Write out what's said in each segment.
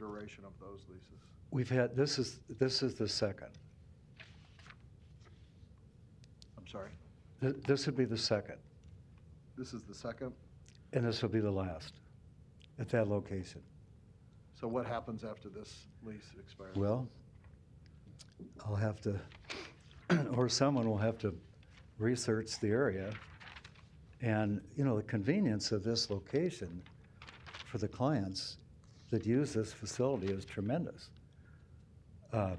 duration of those leases? We've had, this is, this is the second. I'm sorry, Th- This would be the second, this is the second? and this will be the last at that location. So what happens after this lease expires? Well, I'll have to, or someone will have to research the area. And, you know, the convenience of this location for the clients that use this facility is tremendous. Uh,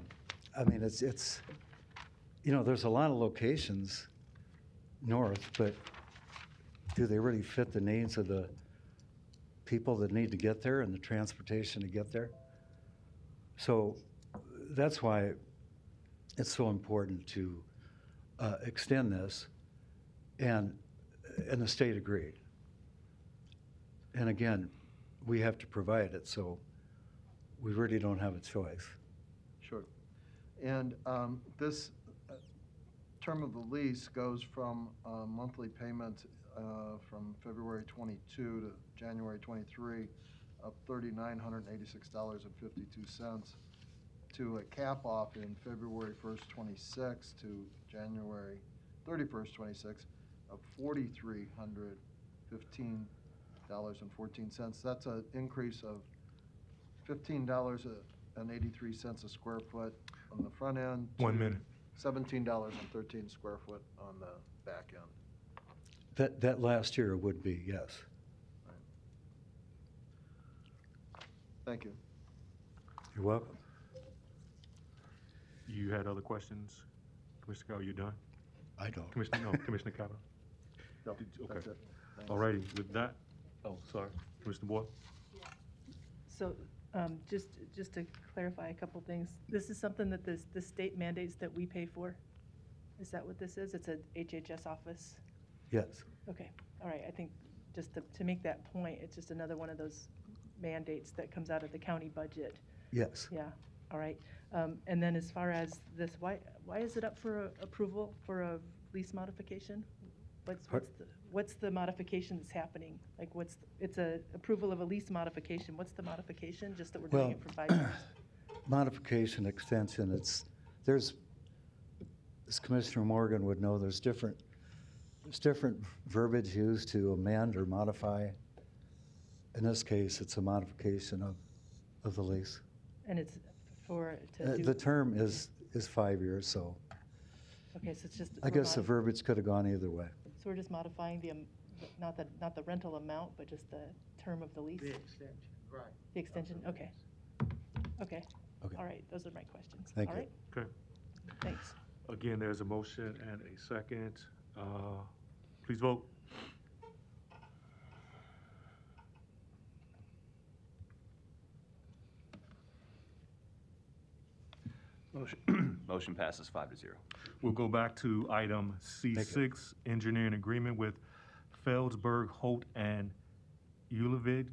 I mean, it's, it's, you know, there's a lot of locations north, but do they really fit the needs of the people that need to get there and the transportation to get there? So that's why it's so important to uh, extend this, and, and the state agreed. And again, we have to provide it, so we really don't have a choice. Sure. And um, this uh, term of the lease goes from uh, monthly payment uh, from February 22 to January 23 of $3,986.52 to a cap off in February 1st, 26 to January 31st, 26 of $4,315.14. That's an increase of fifteen dollars and eighty-three cents a square foot on the front end. One to minute. Seventeen dollars and thirteen square foot on the back end. That, that last year would be, yes. Thank you. You're welcome. You had other questions? Commissioner Cowell, you done? I don't. Commissioner, no, Commissioner Cowell? No, Did- okay. that's it. Thanks. All righty, with that, oh, sorry, Commissioner Boyle? So, um, just, just to clarify a couple things, this is something that this, the state mandates that we pay for? Is that what this is? It's a HHS office? Yes. Okay, all right, I think, just to, to make that point, it's just another one of those mandates that comes out of the county budget. Yes. Yeah, all right. Um, and then as far as this, why, why is it up for a- approval for a lease modification? What's, Par- what's, the what's the modification that's happening? Like, what's, it's a approval of a lease modification, what's the modification, just that we're doing Well, it for five years? modification, extension, it's, there's, as Commissioner Morgan would know, there's different, there's different verbiage used to amend or modify. In this case, it's a modification of, of the lease. And it's for, Uh, to The do, term is, is five years, so okay, so it's just. I we're guess the modi- verbiage could have gone either way. So we're just modifying the, am- not the, not the rental amount, but just the term of the lease? The extension, right. The extension, okay. Okay, Okay. all right, those are my questions. Thank All you. right, Okay. thanks. Again, there's a motion and a second. Uh, Please vote. Motion, motion passes five to zero. We'll go back to item Thank you. C6, engineering agreement with Feldsberg, Holt, and Ulevig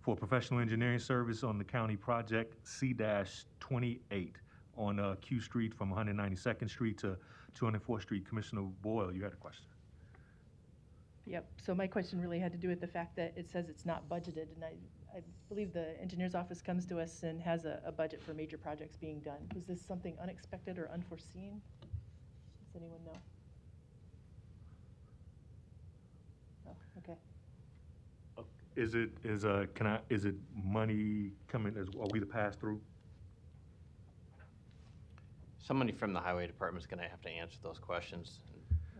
for professional engineering service on the county project C-28 on uh, Q Street from 192nd Street to 204th Street. Commissioner Boyle, you had a question. Yep, so my question really had to do with the fact that it says it's not budgeted, and I, I believe the engineer's office comes to us and has a, a budget for major projects being done. Was this something unexpected or unforeseen? Does anyone know? Oh, okay. Is it, is, uh, can I, is it money coming, is, are we the pass-through? Somebody from the highway department's gonna have to answer those questions.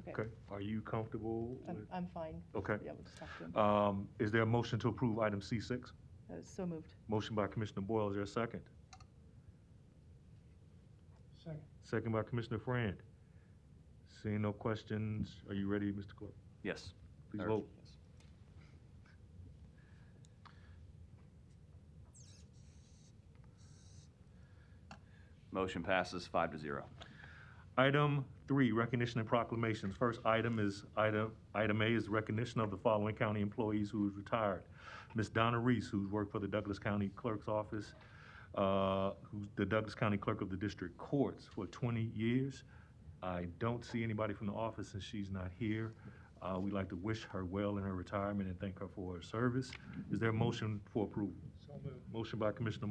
Okay, Okay, are you comfortable? I'm, with- I'm fine. Okay. Yeah, we'll just talk to him. Um, Is there a motion to approve item C6? Uh, So moved. Motion by Commissioner Boyle, is there a second? Second. Second by Commissioner Friend. Seeing no questions, are you ready, Mr. Clerk? Yes. Please Or- vote. yes. Motion passes five to zero. Item three, recognition and proclamations. First item is, item, item A is recognition of the following county employees who is retired. Ms. Donna Reese, who's worked for the Douglas County Clerk's Office, uh, who's the Douglas County Clerk of the District Courts for twenty years. I don't see anybody from the office and she's not here. Uh, we'd like to wish her well in her retirement and thank her for her service. Is there a motion for approval? Motion by Commissioner Moore.